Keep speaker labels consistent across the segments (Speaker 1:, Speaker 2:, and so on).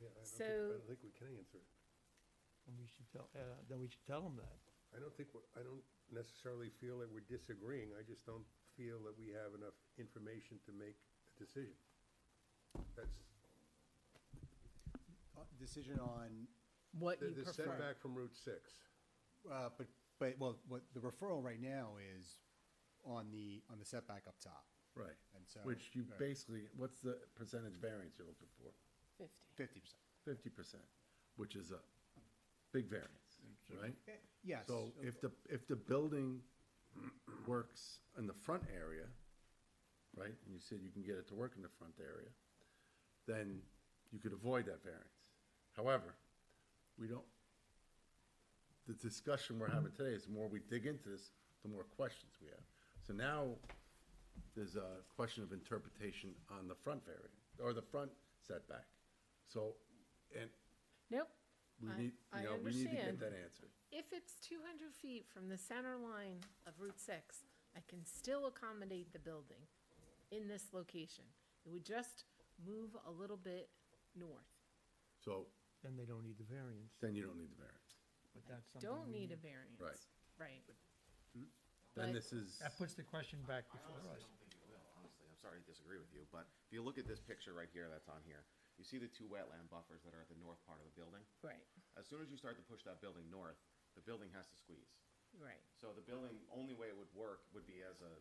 Speaker 1: don't think-
Speaker 2: So-
Speaker 1: I don't think we can answer it.
Speaker 3: And we should tell, uh, then we should tell them that.
Speaker 1: I don't think, we're- I don't necessarily feel that we're disagreeing, I just don't feel that we have enough information to make a decision. That's,
Speaker 4: Uh, Decision on,
Speaker 2: What
Speaker 1: the
Speaker 2: you
Speaker 1: the
Speaker 2: prefer.
Speaker 1: setback from Route 6.
Speaker 4: uh, but, but, well, what, the referral right now is on the, on the setback up top,
Speaker 5: Right.
Speaker 4: And so-
Speaker 5: Which you
Speaker 4: uh, Right.
Speaker 5: basically, what's the percentage variance you're looking for?
Speaker 2: Fifty.
Speaker 4: fifty percent.
Speaker 5: Fifty percent, which is a big variance, right?
Speaker 4: Eh, yes.
Speaker 5: So if the, if the building works in the front area, right, and you said you can get it to work in the front area, then you could avoid that variance. However, we don't, the discussion we're having today is the more we dig into this, the more questions we have. So now, there's a question of interpretation on the front variant, or the front setback. So, and
Speaker 2: Nope.
Speaker 5: we
Speaker 2: I-
Speaker 5: need,
Speaker 2: I
Speaker 5: you know, we need to get
Speaker 2: understand.
Speaker 5: that answered.
Speaker 2: If it's two hundred feet from the center line of Route six, I can still accommodate the building in this location. It would just move a little bit north.
Speaker 5: So
Speaker 3: Then they don't need the variance.
Speaker 5: then you don't need the variance.
Speaker 3: But that's something.
Speaker 2: Don't
Speaker 3: we
Speaker 2: need a variance.
Speaker 5: Right.
Speaker 2: Right.
Speaker 5: Then
Speaker 2: But-
Speaker 5: this is,
Speaker 3: That puts the question back
Speaker 6: I
Speaker 3: before us.
Speaker 6: honestly don't think it will, honestly. I'm sorry to disagree with you, but if you look at this picture right here that's on here, you see the two wetland buffers that are at the north part of the building?
Speaker 2: Right,
Speaker 6: As soon as you start to push that building north, the building has to squeeze.
Speaker 2: right.
Speaker 6: So the building, only way it would work would be as a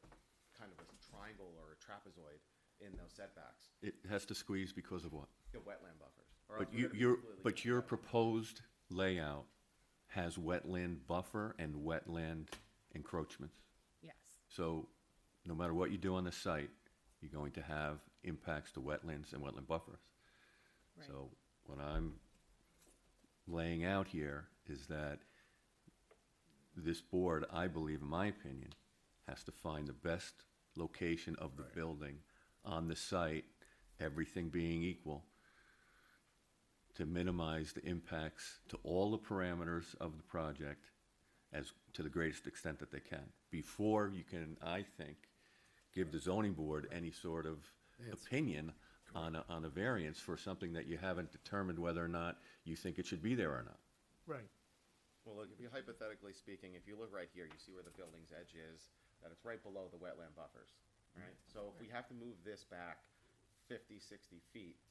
Speaker 6: kind of a triangle or a trapezoid in those setbacks,
Speaker 7: It has to squeeze because of what?
Speaker 6: the wetland buffers. or else
Speaker 7: But
Speaker 6: we're
Speaker 7: you-
Speaker 6: gonna be
Speaker 7: your,
Speaker 6: completely
Speaker 7: but your
Speaker 6: outside.
Speaker 7: proposed layout has wetland buffer and wetland encroachments.
Speaker 2: Yes,
Speaker 7: So no matter what you do on the site, you're going to have impacts to wetlands and wetland buffers.
Speaker 2: right.
Speaker 7: So what I'm laying out here is that this board, I believe, in my opinion, has to find the best location of the building on the site, everything being equal, to minimize the impacts to all the parameters of the project as, to the greatest extent that they can, before you can, I think, give the zoning board any sort of opinion on a, on a variance for something that you haven't determined whether or not you think it should be there or not.
Speaker 3: Right.
Speaker 6: Well, look, if you hypothetically speaking, if you look right here, you see where the building's edge is, that it's right below the wetland buffers, right?
Speaker 7: Mm-hmm.
Speaker 6: So if we have to move this back 50, 60 feet,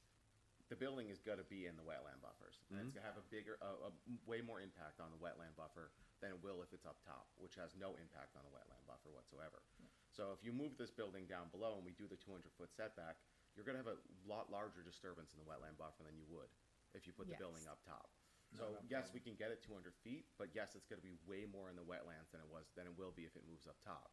Speaker 6: the building is gonna be in the wetland buffers. And it's gonna have a bigger, a, a way more impact on the wetland buffer than it will if it's up top, which has no impact on the wetland buffer whatsoever. So if you move this building down below and we do the 200-foot setback, you're gonna have a lot larger disturbance in the wetland buffer than you would if you put the
Speaker 2: Yes.
Speaker 6: building up top. So yes, we can get it two hundred feet, but yes, it's gonna be way more in the wetlands than it was, than it will be if it moves up top.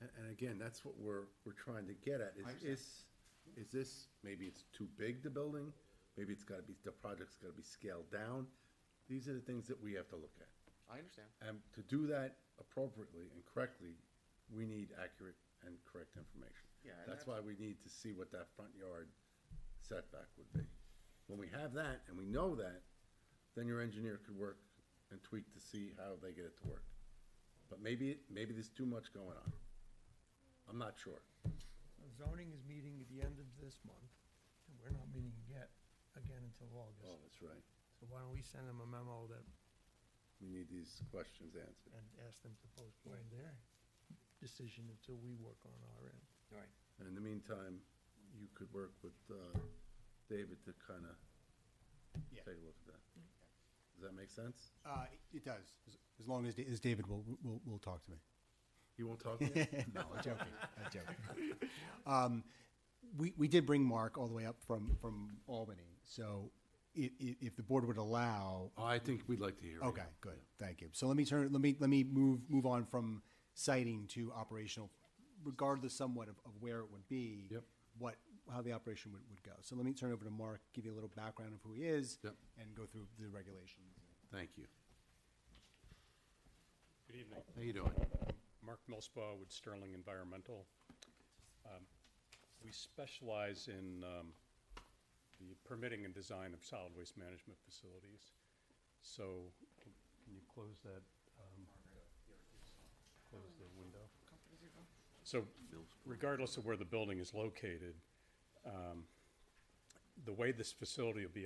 Speaker 5: and and again, that's what we're, we're trying to get at,
Speaker 6: I
Speaker 5: is,
Speaker 6: understand.
Speaker 5: is, is this, maybe it's too big, the building? Maybe it's gotta be, the project's gotta be scaled down. These are the things that we have to look at.
Speaker 6: I understand.
Speaker 5: And to do that appropriately and correctly, we need accurate and correct information.
Speaker 6: Yeah, and
Speaker 5: That's
Speaker 6: that's-
Speaker 5: why we need to see what that front yard setback would be. When we have that and we know that, then your engineer could work and tweak to see how they get it to work. But maybe, maybe there's too much going on. I'm not sure.
Speaker 3: So Zoning is meeting at the end of this month, and we're not meeting yet, again until August.
Speaker 5: Oh, that's right.
Speaker 3: So why don't we send them a memo that,
Speaker 5: We need these questions answered.
Speaker 3: and ask them to postpone their decision until we work on our end? Right.
Speaker 5: And in the meantime, you could work with, uh, David to kinda
Speaker 4: Yeah.
Speaker 5: take a look at that. Does that make sense?
Speaker 4: Uh, it- it does, as- as long as, Da- as David will, will, will talk to me.
Speaker 5: You won't talk to me?
Speaker 4: No, I'm joking, I'm joking. Um, we, we did bring Mark all the way up from, from Albany, so i- i- if the board would allow,
Speaker 5: Oh, I think we'd like to hear. it.
Speaker 4: Okay, good. Thank you. So let me turn, let me, let me move, move on from siting to operational, regardless somewhat of, of where it would be.
Speaker 5: Yep.
Speaker 4: What, how the operation would, would go. So let me turn over to Mark, give you a little background of who he is.
Speaker 5: Yep.
Speaker 4: And go through the regulations.
Speaker 5: Thank you.
Speaker 8: Good evening.
Speaker 5: How you doing?
Speaker 8: Mark Millsbaugh with Sterling Environmental. Um, We specialize in um, the permitting and design of solid waste management facilities. So can you close that? um, Close the window. So regardless of where the building is located, um, the way this facility will be